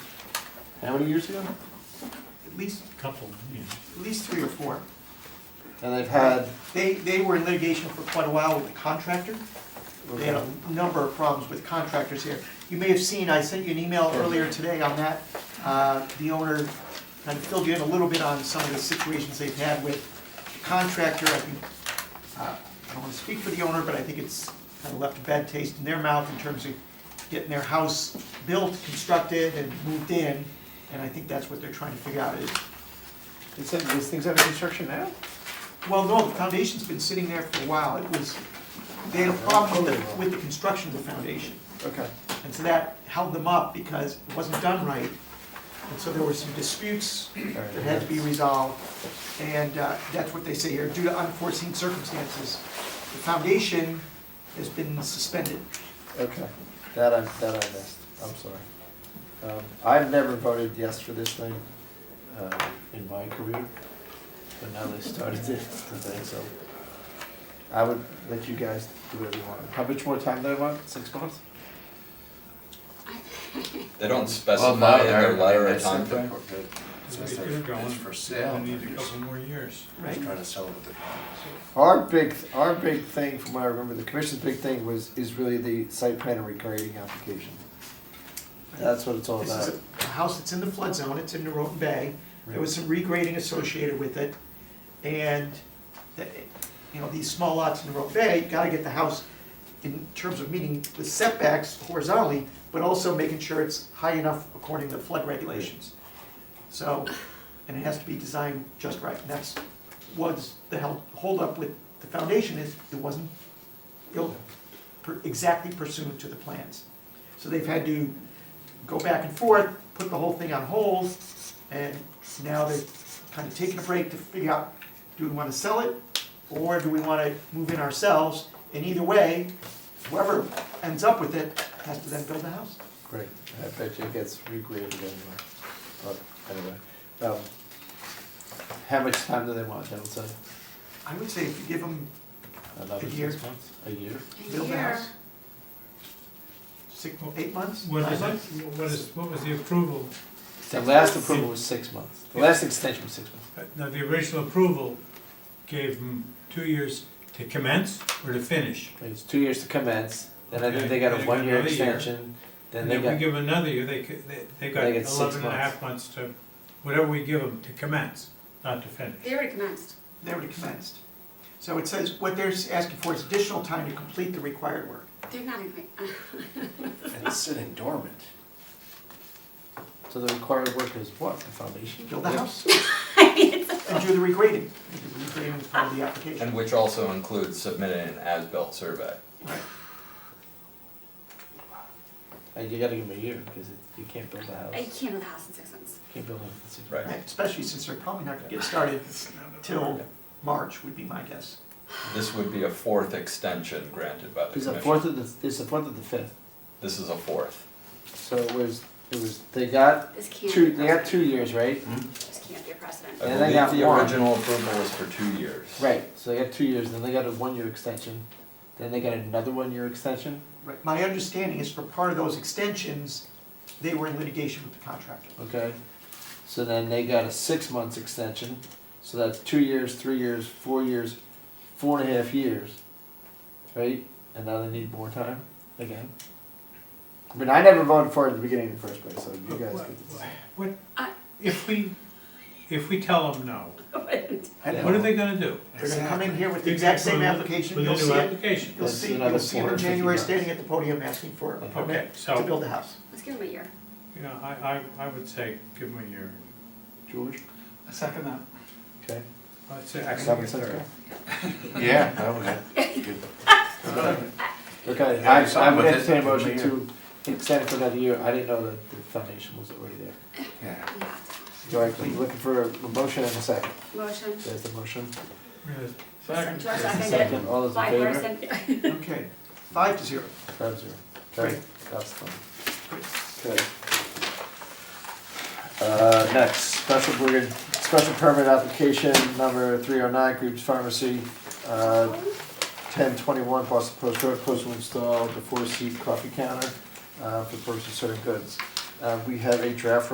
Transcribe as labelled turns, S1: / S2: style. S1: How many years ago?
S2: at least,
S3: couple, you know.
S2: at least three or four.
S1: And they've had,
S2: They, they were in litigation for quite a while with the contractor. They had a number of problems with contractors here. You may have seen, I sent you an email earlier today on that. Uh, The owner kind of filled you in a little bit on some of the situations they've had with the contractor. I think, uh, I don't want to speak for the owner, but I think it's kind of left a bad taste in their mouth in terms of getting their house built, constructed, and moved in. And I think that's what they're trying to figure out is,
S4: It said this thing's under construction now?
S2: well, no, the foundation's been sitting there for a while. It was, they had a problem with the, with the construction of the foundation.
S4: Okay.
S2: And so that held them up because it wasn't done right. And so there were some disputes that had to be resolved. And uh, that's what they say here, due to unforeseen circumstances, the foundation has been suspended.
S1: okay, that I, that I missed, I'm sorry. Um, I've never voted yes for this thing, uh, in my career, but now they started it, the thing, so. I would let you guys do whatever you want. How much more time do I want? Six months?
S5: They don't specify in their letter a timeframe.
S3: It's going.
S6: It's for sale.
S3: We need a couple more years.
S2: Right.
S6: Just trying to sell it with the bonds.
S1: Our big, our big thing, from what I remember, the commission's big thing was, is really the site plan and regrading application. That's what it's all
S2: This
S1: about.
S2: is a house that's in the flood zone, it's in Norotan Bay. There was some regrading associated with it. And, the- you know, these small lots in Norotan Bay, you gotta get the house in terms of meeting the setbacks horizontally, but also making sure it's high enough according to flood regulations. So, and it has to be designed just right. And that's, was the held, holdup with the foundation is it wasn't built per- exactly pursuant to the plans. So they've had to go back and forth, put the whole thing on hold, and now they're kind of taking a break to figure out, do we want to sell it? Or do we want to move in ourselves? And either way, whoever ends up with it has to then build the house.
S1: Great, I bet you it gets regraded anyway, but anyway. um, How much time do they want, they don't say?
S2: I would say if you give them
S1: Another
S2: A year.
S1: six months? A year?
S2: build the house. Six, eight months?
S3: What
S2: nine
S3: is, it-
S2: months?
S3: what is, what was the approval?
S1: The last approval was six months, the last extension was six months.
S3: Uh, Now, the original approval gave them two years to commence or to finish.
S1: It was two years to commence, then I
S3: Okay,
S1: think they got
S3: then
S1: a
S3: they got
S1: one-year
S3: another year.
S1: extension, then
S3: And
S1: they
S3: if we
S1: got,
S3: give them another year, they, could- they, they've got
S1: They get six
S3: eleven and a half months to, whatever we give them, to commence, not to finish.
S7: They already commenced.
S2: They already commenced. So it says, what they're asking for is additional time to complete the required work.
S7: They're not in,
S6: And it's sitting dormant.
S1: so the required work is what, the foundation?
S2: Build the house. And do the regrading. The regrading is part of the application.
S5: And which also includes submitting an as-built survey.
S2: Right.
S1: And you gotta give them a year, because it- you can't build a
S7: I
S1: house,
S7: can't do the house in six months.
S1: can't build a house in six months.
S5: Right.
S2: Right, Especially since they're probably not gonna get started till March would be my guess.
S5: This would be a fourth extension granted by the
S1: It's the
S5: commission.
S1: fourth of the, it's the fourth of the fifth,
S5: This is a fourth.
S1: so it was, it was, they got
S7: This can't be
S1: two,
S7: a
S1: they got
S7: precedent.
S1: two years, right?
S7: This can't be a precedent.
S5: I
S1: And they got
S5: believe the
S1: one.
S5: original approval was for two years.
S1: Right, so they got two years, then they got a one-year extension, then they got another one-year extension,
S2: Right. My understanding is for part of those extensions, they were in litigation with the contractor.
S1: okay? So then they got a six months extension, so that's two years, three years, four years, four and a half years, right? And now they need more time again. I mean, I never voted for it at the beginning in the first place, so you guys get to.
S3: What,
S7: I-
S3: if we, if we tell them no,
S4: I know.
S3: what are they gonna do?
S2: They're gonna come in here with the exact same application,
S3: With
S2: you'll
S3: a
S2: see
S3: new
S2: it,
S3: application.
S2: you'll
S1: That's
S2: see,
S1: another
S2: you'll see them in
S1: 450
S2: January
S1: bucks.
S2: standing at the podium asking for a
S3: Okay,
S2: permit to
S3: so,
S2: build a house.
S7: Let's give them a year.
S3: you know, I, I, I would say give them a year.
S1: George?
S3: I second that.
S1: Okay.
S3: I'd say, I
S1: Seven,
S3: think it's
S1: six,
S3: third.
S6: Yeah, that was it. Good.
S1: Okay,
S6: Yeah,
S1: I,
S6: it's
S1: I
S6: on
S1: would
S6: with
S1: entertain a
S6: it.
S1: motion to extend for another year, I didn't know that the foundation was already there.
S6: Yeah.
S7: You have
S1: So I'm looking for a motion and a second,
S7: to. Motion.
S1: there's the motion.
S3: Yes.
S7: George
S1: There's the
S7: seconded.
S1: second, all those in
S7: Five
S1: favor?
S7: person.
S2: Okay, five to zero.
S1: Five zero. Okay, that's fine. Okay. Uh, next, special, we're gonna, special permit application number three oh nine, Groups Pharmacy, uh, ten twenty-one Boston Post Road, post will install the four-seat coffee counter, uh, for person serving goods. Uh, we have a draft